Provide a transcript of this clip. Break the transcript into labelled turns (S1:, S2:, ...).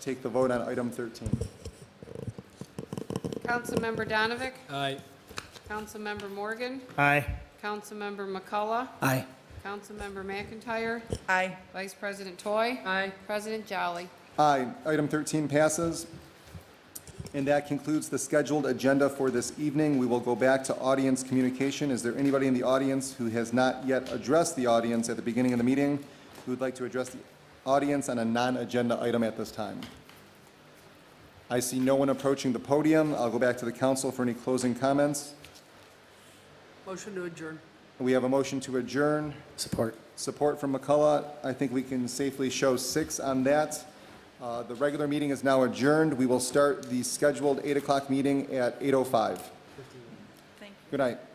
S1: take the vote on item 13.
S2: Councilmember Donavick,
S3: Aye.
S2: Councilmember Morgan,
S4: Aye.
S2: Councilmember McCullough,
S4: Aye.
S2: Councilmember McIntyre,
S5: Aye.
S2: Vice President Toy.
S5: Aye.
S2: President Jolly.
S1: Aye. Item 13 passes. And that concludes the scheduled agenda for this evening. We will go back to audience communication. Is there anybody in the audience who has not yet addressed the audience at the beginning of the meeting who would like to address the audience on a non-agenda item at this time? I see no one approaching the podium. I'll go back to the council for any closing comments.
S5: Motion to adjourn.
S1: We have a motion to adjourn.
S4: Support.
S1: Support from McCullough. I think we can safely show six on that. Uh, The regular meeting is now adjourned. We will start the scheduled 8 o'clock meeting at 8:05.
S5: Thank you.
S1: Good night.